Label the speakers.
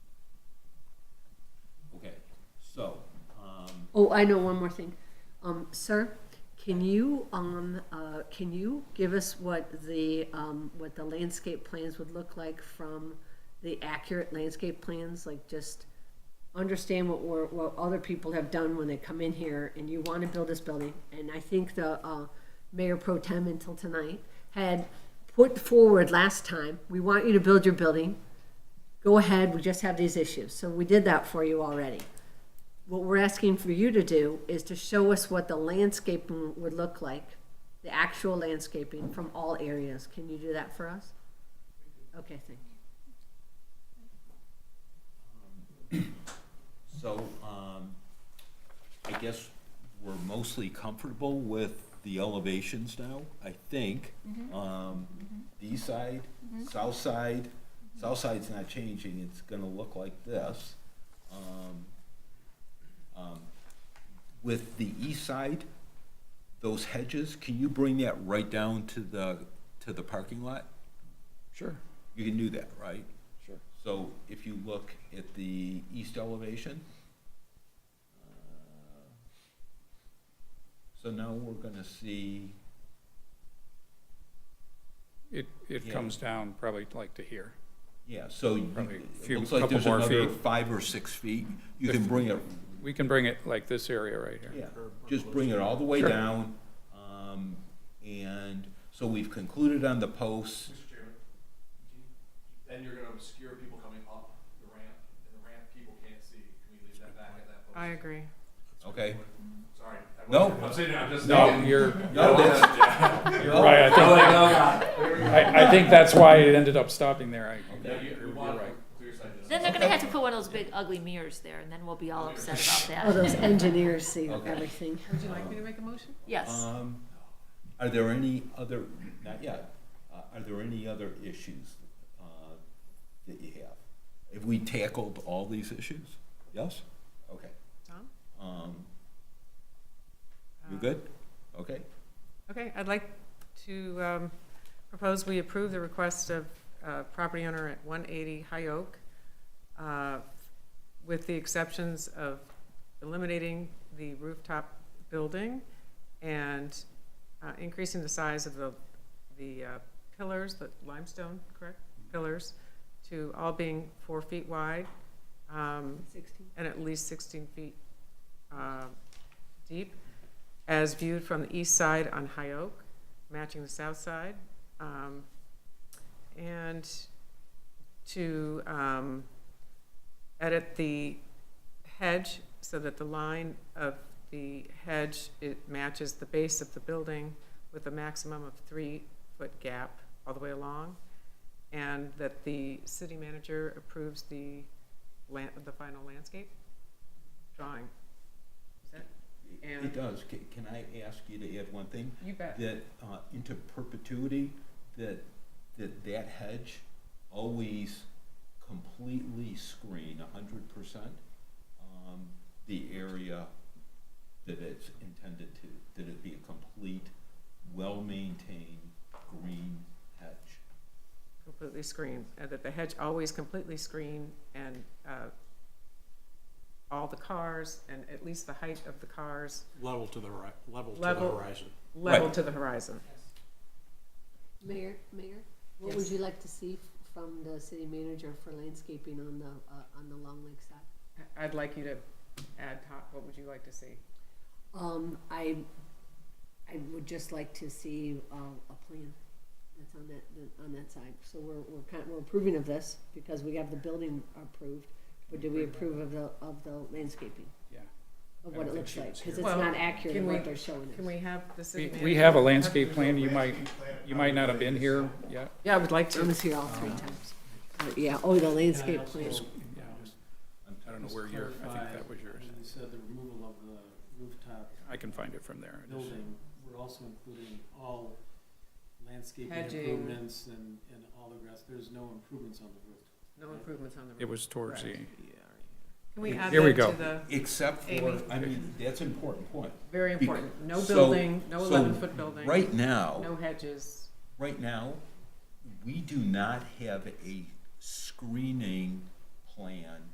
Speaker 1: um,
Speaker 2: Oh, I know one more thing. Um, sir, can you, um, uh, can you give us what the, um, what the landscape plans would look like from the accurate landscape plans? Like just understand what we're, what other people have done when they come in here and you want to build this building. And I think the, uh, Mayor Pro Tem until tonight had put forward last time, we want you to build your building. Go ahead, we just have these issues. So we did that for you already. What we're asking for you to do is to show us what the landscaping would look like, the actual landscaping from all areas. Can you do that for us? Okay, thank you.
Speaker 1: So, um, I guess we're mostly comfortable with the elevations now, I think. Um, east side, south side, south side's not changing, it's gonna look like this. Um, um, With the east side, those hedges, can you bring that right down to the, to the parking lot?
Speaker 3: Sure,
Speaker 1: You can do that, right?
Speaker 3: sure.
Speaker 1: So if you look at the east elevation, uh, so now we're gonna see,
Speaker 3: It, it
Speaker 1: Yeah.
Speaker 3: comes down probably like to here.
Speaker 1: yeah, so you-
Speaker 3: Probably a
Speaker 1: it
Speaker 3: few-
Speaker 1: looks like
Speaker 3: couple
Speaker 1: there's
Speaker 3: more
Speaker 1: another
Speaker 3: feet.
Speaker 1: five or six feet. You can bring it,
Speaker 3: We can bring it like this area right here.
Speaker 1: yeah, just bring it all the way
Speaker 3: Sure.
Speaker 1: down. Um, and so we've concluded on the posts.
Speaker 4: Mr. Chairman, can you- then you're gonna obscure people coming up the ramp, and the ramp people can't see. Can we leave that back at that
Speaker 5: I
Speaker 4: post?
Speaker 5: agree.
Speaker 1: Okay.
Speaker 4: Sorry. I
Speaker 1: No.
Speaker 4: wasn't- I'm saying, I'm just.
Speaker 3: No,
Speaker 4: thinking-
Speaker 3: Um, you're,
Speaker 1: No, that's-
Speaker 3: you're
Speaker 1: Oh.
Speaker 3: right, I think, I, I think that's why it ended up stopping there, I,
Speaker 4: Yeah, you, you
Speaker 3: you're
Speaker 4: want
Speaker 3: right.
Speaker 4: clear sight distance.
Speaker 6: Then they're gonna have to put one of those big ugly mirrors there, and then we'll be all upset
Speaker 2: Oh,
Speaker 6: about that.
Speaker 2: those engineers see
Speaker 1: Okay.
Speaker 2: everything.
Speaker 5: Would you like me to make a motion?
Speaker 6: Yes.
Speaker 1: Um, Are there any other, not yet, uh, are there any other issues uh, that you have? Have we tackled all these issues? Yes? Okay.
Speaker 5: Tom? Uh,
Speaker 1: Um, You good? Okay.
Speaker 5: Okay, I'd like to um, propose we approve the request of uh, property owner at 180 High Oak uh, with the exceptions of eliminating the rooftop building and uh, increasing the size of the, the uh, pillars, the limestone, correct? Pillars, to all being four feet wide um,
Speaker 2: Sixteen.
Speaker 5: and at least 16 feet uh, deep, as viewed from the east side on High Oak, matching the south side. um, And to um, edit the hedge so that the line of the hedge, it matches the base of the building with a maximum of three-foot gap all the way along, and that the city manager approves the land, the final landscape drawing. Is that, And-
Speaker 1: It does. Ca- Can I ask you to add one thing?
Speaker 5: you bet.
Speaker 1: That uh, into perpetuity, that, that that hedge always completely screen a hundred percent um, the area that it's intended to, that it be a complete, well-maintained green hedge.
Speaker 5: Completely screened, and that the hedge always completely screened and, uh, all the cars and at least the height of the cars
Speaker 7: Level to the right, level to the
Speaker 5: Level.
Speaker 7: horizon.
Speaker 5: level
Speaker 1: Right.
Speaker 5: to the horizon.
Speaker 2: Mayor, Mayor, what would you like to see from the city manager for landscaping on the, uh, on the Long Lake side?
Speaker 5: I- I'd like you to add, Tom, what would you like to see?
Speaker 2: Um, I, I would just like to see, uh, a plan that's on that, that- on that side. So we're, we're kind, we're approving of this because we have the building approved, but do we approve of the, of the landscaping?
Speaker 3: yeah.
Speaker 2: Of
Speaker 3: I
Speaker 2: what it
Speaker 3: don't think
Speaker 2: looks
Speaker 3: she
Speaker 2: like,
Speaker 3: was
Speaker 2: cause it's
Speaker 3: here.
Speaker 5: Well,
Speaker 2: not accurate
Speaker 5: can
Speaker 2: what
Speaker 5: we-
Speaker 2: they're showing us.
Speaker 5: Can we have the
Speaker 3: We,
Speaker 5: city
Speaker 3: we
Speaker 5: manager-
Speaker 3: have a landscape plan, you might, you might not have been here yet,
Speaker 5: Yeah, I would like
Speaker 2: I
Speaker 5: to.
Speaker 2: was here all three times. Uh, Yeah, oh, the landscape plan.
Speaker 3: yeah. I don't know where your, I think that was yours.
Speaker 8: And they said the removal of the rooftop
Speaker 3: I can find it from there. I just-
Speaker 8: building, we're also including all landscaping
Speaker 5: Hedging.
Speaker 8: improvements and, and all the rest, there's no improvements on the roof.
Speaker 5: No improvements on the roof.
Speaker 3: It was towards the,
Speaker 5: Correct. Can we add
Speaker 3: Here we
Speaker 5: that to
Speaker 3: go.
Speaker 5: the,
Speaker 1: Except for,
Speaker 5: Amy.
Speaker 1: I mean, that's an important point.
Speaker 5: very
Speaker 1: Bec-
Speaker 5: important, no
Speaker 1: so-
Speaker 5: building, no
Speaker 1: so
Speaker 5: eleven-foot building.
Speaker 1: Right now.
Speaker 5: No hedges.
Speaker 1: right now, we do not have a screening plan